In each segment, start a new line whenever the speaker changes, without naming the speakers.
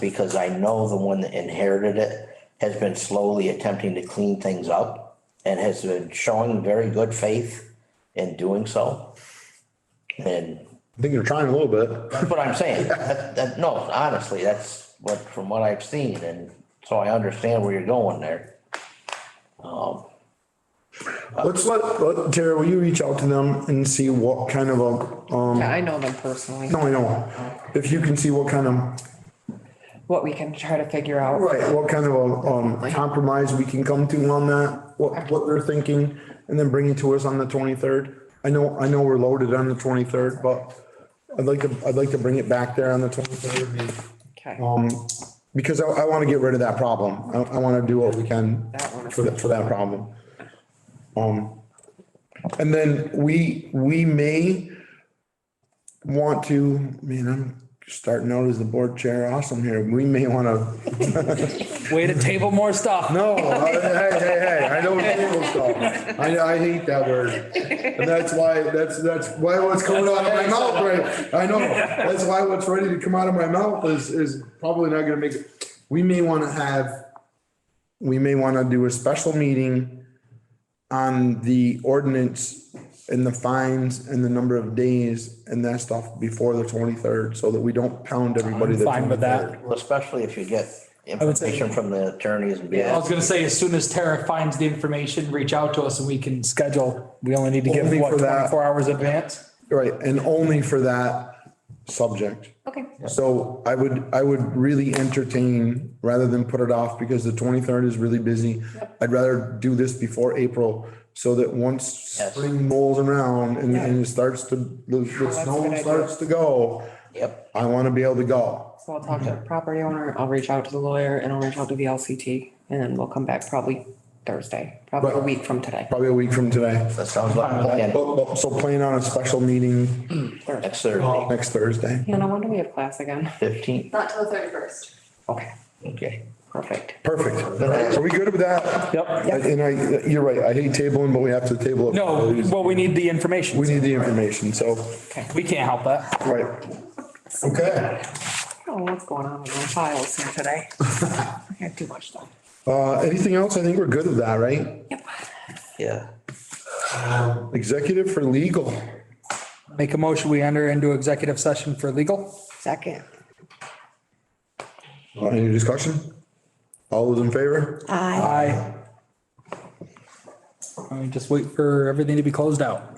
Because I know the one that inherited it has been slowly attempting to clean things up and has been showing very good faith in doing so. And
I think you're trying a little bit.
that's what I'm saying. That, that, no, honestly, that's what, from what I've seen, and so I understand where you're going there.
Let's let, let- Tara, will you reach out to them and see what kind of a, um,
I know them personally,
no, I know. If you can see what kind of,
what we can try to figure out.
right, what kind of a, um, compromise we can come to on that, what, what they're thinking, and then bring it to us on the twenty-third. I know, I know we're loaded on the twenty-third, but I'd like to, I'd like to bring it back there on the twenty-third.
Okay,
Um, because I, I want to get rid of that problem. I, I want to do what we can
That one.
for that, for that problem. Um, and then we, we may want to, man, I'm starting out as the board chair. Awesome here. We may want to,
Way to table more stuff.
no, I- hey, hey, hey, I don't table stuff. I, I hate that word. And that's why, that's, that's why what's coming out of my mouth, right? I know. That's why what's ready to come out of my mouth is, is probably not gonna make it. We may want to have, we may want to do a special meeting on the ordinance and the fines and the number of days and that stuff before the twenty-third, so that we don't pound everybody. the
fine with that.
23rd.
Well, Especially if you get
would say-
information from the attorneys and be.
I was gonna say, as soon as Tara finds the information, reach out to us and we can schedule. We only need to give
Only
what,
for that.
twenty-four hours advance?
Right, and only for that subject.
okay,
So I would, I would really entertain, rather than put it off, because the twenty-third is really busy. I'd rather do this before April, so that once
Yes.
spring rolls around and, and it starts to, the, the
Oh, a
snow
good idea.
starts to go,
Yep,
I wanna be able to go.
so I'll talk to the property owner, I'll reach out to the lawyer and I'll reach out to the LCT. And then we'll come back probably Thursday, probably a
Right.
week from today.
Probably a week from today.
that sounds like a plan.
But, but, so plan on a special meeting
Thursday.
Next Thursday,
next Thursday.
Hannah, when do we have class again?
fifteenth,
Not till the thirty-first.
Okay,
okay.
perfect.
Perfect. Are we good with that?
Yep.
And I, you're right, I hate tabling, but we have to table it.
No, well, we need the
We
information.
need the information, so,
We can't help that.
right. Okay.
I don't know Oh, what's going on with my files here today. I got too much stuff.
Uh, anything else? I think we're good with that, right?
Yep.
Yeah,
Executive for legal.
Make a motion, we enter into executive session for legal.
Second.
Uh, Any discussion? All those in favor?
Aye. I just wait for everything to be closed out.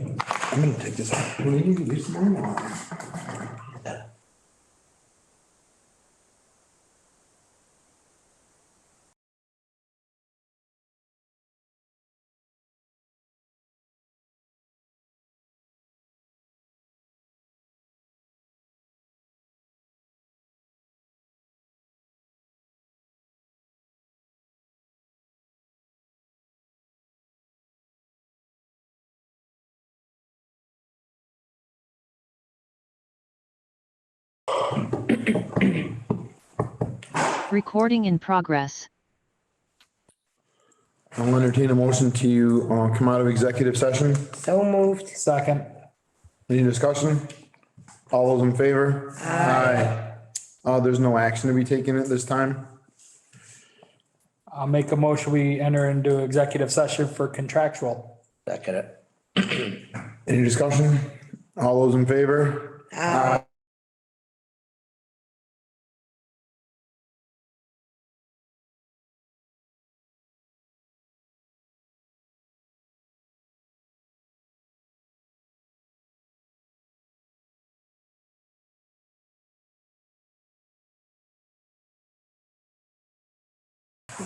I'm gonna take this. out. What do you need? Leave mine on.
Recording in progress.
I'll entertain a motion to, uh, come out of executive session.
So moved.
Second.
Any discussion? All those in favor? Aye. Uh, there's no action to be taken at this time.
I'll make a motion, we enter into executive session for contractual.
second it.
Any discussion? All those in favor?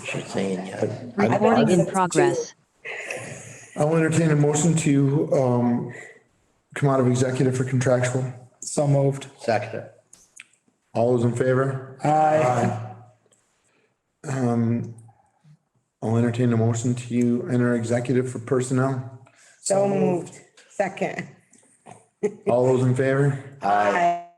She's saying, yeah.
Recording in progress.
I'll entertain a motion to, um, come out of executive for contractual.
So moved.
second it.
All those in favor? Um,
Aye.
I'll entertain a motion to enter executive for personnel.
So moved. Second.
All those in favor?
Aye.